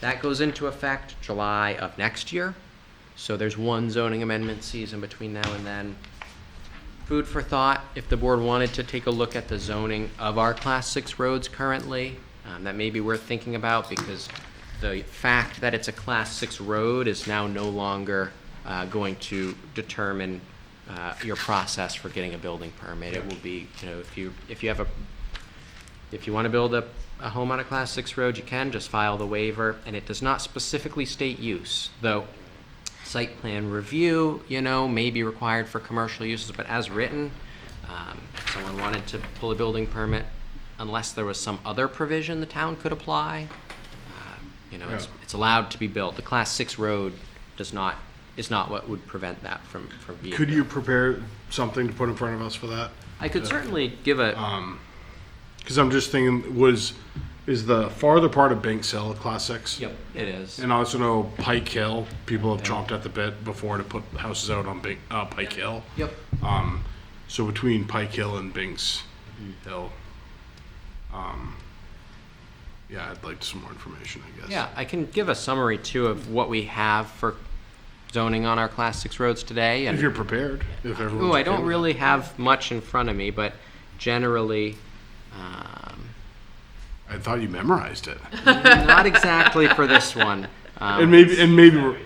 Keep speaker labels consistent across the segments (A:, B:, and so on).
A: That goes into effect July of next year. So there's one zoning amendment season between now and then. Food for thought, if the board wanted to take a look at the zoning of our class six roads currently, um, that may be worth thinking about because the fact that it's a class six road is now no longer, uh, going to determine, uh, your process for getting a building permit. It will be, you know, if you, if you have a if you want to build a, a home on a class six road, you can, just file the waiver, and it does not specifically state use, though site plan review, you know, may be required for commercial uses, but as written, um, if someone wanted to pull a building permit, unless there was some other provision the town could apply, uh, you know, it's,
B: Yeah.
A: it's allowed to be built. The class six road does not, is not what would prevent that from, from being.
B: Could
A: built.
B: you prepare something to put in front of us for that?
A: I could certainly give a,
B: Uh-huh. Because I'm just thinking, was, is the farther part of Bank Hill a class six?
A: yep, it is.
B: And I also know Pike Hill, people have chomped at the bit before to put houses out on Bank, uh, Pike Hill.
A: Yep.
B: Um, so between Pike Hill and Binks Hill, um, yeah, I'd like some more information, I guess.
A: Yeah, I can give a summary too of what we have for zoning on our class six roads today.
B: If
A: And,
B: you're prepared, if everyone's.
A: ooh, I
B: okay
A: don't
B: with it.
A: really have much in front of me, but generally, um,
B: I thought you memorized it.
A: not exactly for this one.
B: And
A: Um,
B: maybe, and maybe, we're-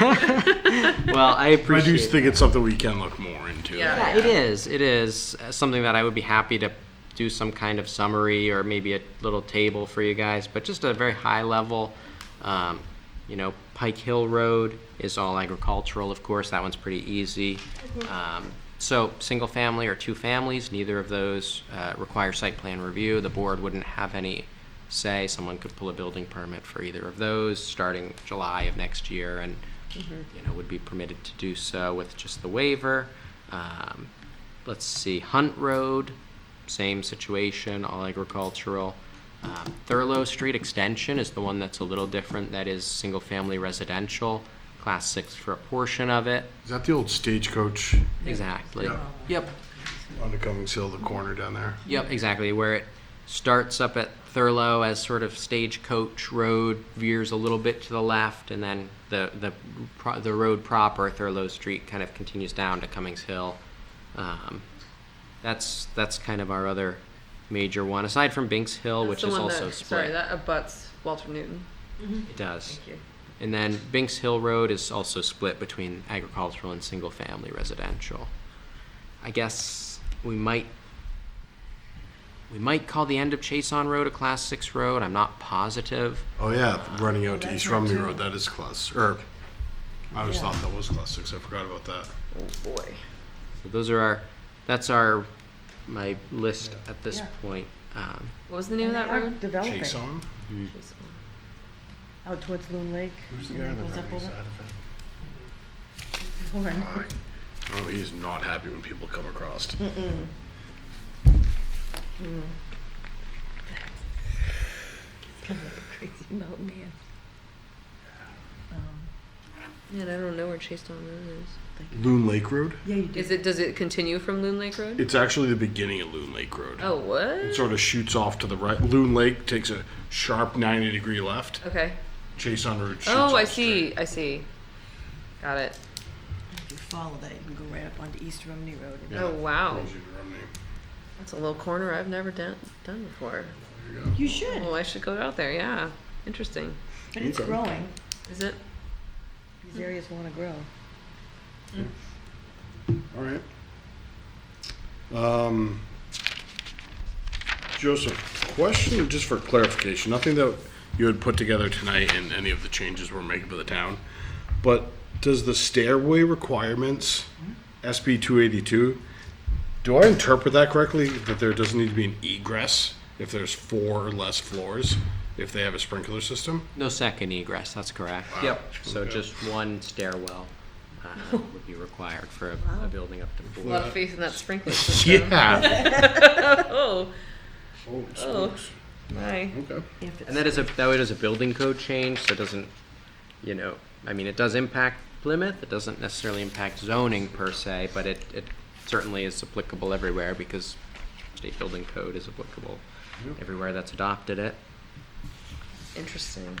A: well, I
B: I do
A: appreciate it.
B: think it's something we can look more into.
C: Yeah.
A: Yeah, it is. It is uh, something that I would be happy to do some kind of summary or maybe a little table for you guys, but just a very high level. Um, you know, Pike Hill Road is all agricultural, of course. That one's pretty easy. Um, so, single family or two families, neither of those uh, require site plan review. The board wouldn't have any say. Someone could pull a building permit for either of those starting July of next year and, you know, would be permitted to do so with just the waiver. Um, let's see, Hunt Road, same situation, all agricultural. Um, Thurlow Street Extension is the one that's a little different. That is single family residential, class six for a portion of it.
B: Is that the old stagecoach
A: Exactly.
B: Yeah.
A: Yep.
B: on the Cummings Hill, the corner down there?
A: Yep, exactly. Where it starts up at Thurlow as sort of Stagecoach Road, veers a little bit to the left, and then the the pro- the road proper, Thurlow Street, kind of continues down to Cummings Hill. Um, that's that's kind of our other major one, aside from Binks Hill,
C: That's
A: Oh, which
C: the
A: is
C: one
A: also
C: that, Sorry,
A: split.
C: that abuts Walter Newton.
A: it does.
C: Thank you.
A: And then Binks Hill Road is also split between agricultural and single family residential. I guess we might we might call the end of Chason Road a class six road. I'm not positive.
B: Oh yeah, running out to East Romney Road, that is class, or, I always thought that was class six, I forgot about that.
C: Oh boy.
A: So those are our that's our my list at this point. Um,
C: What was the name of that road?
D: Developing
B: Jason?
D: out towards Loon Lake.
B: Who's
D: and then goes up over- over and-
B: Oh, he's not happy when people come across.
C: Hmm.
D: Crazy mountain man. Um,
C: Man, I don't know where Chase Down Road is.
B: Loon Lake Road?
D: Yeah, you did.
C: Is it? Does it continue from Loon Lake Road?
B: It's actually the beginning of Loon Lake Road.
C: Oh,
B: It
C: what?
B: sort of shoots off to the right, Loon Lake takes a sharp ninety degree left,
C: Okay.
B: Jason Road shoots
C: Oh,
B: up
C: I
B: straight.
C: see. I see. Got it.
D: If you follow that, you can go right up onto East Romney Road. and-
B: Yeah,
C: Oh, wow.
B: goes into Romney.
C: That's a little corner I've never done done before.
D: You should,
C: Oh, I should go out there. Yeah. Interesting.
D: but it's
B: Okay.
D: growing.
C: Is it?
D: These areas want to grow.
B: All right. Um, Joseph, question just for clarification, nothing that you had put together tonight and any of the changes we're making for the town, but does the stairway requirements, SB two eighty-two, do I interpret that correctly, that there doesn't need to be an egress if there's four or less floors, if they have a sprinkler system?
A: no second egress. That's correct. Yep. So just one stairwell uh, would be required for a, a building up to
C: A
A: four.
C: lot of faith in that sprinkler system.
B: Yeah.
C: oh,
B: Oh,
C: Oh.
B: spooks.
C: my.
B: Okay.
A: And
D: If it's,
A: that is a, that is a building code change, so it doesn't, you know, I mean, it does impact Plymouth, it doesn't necessarily impact zoning per se, but it, it certainly is applicable everywhere because state building code is applicable everywhere that's adopted it.
C: Interesting.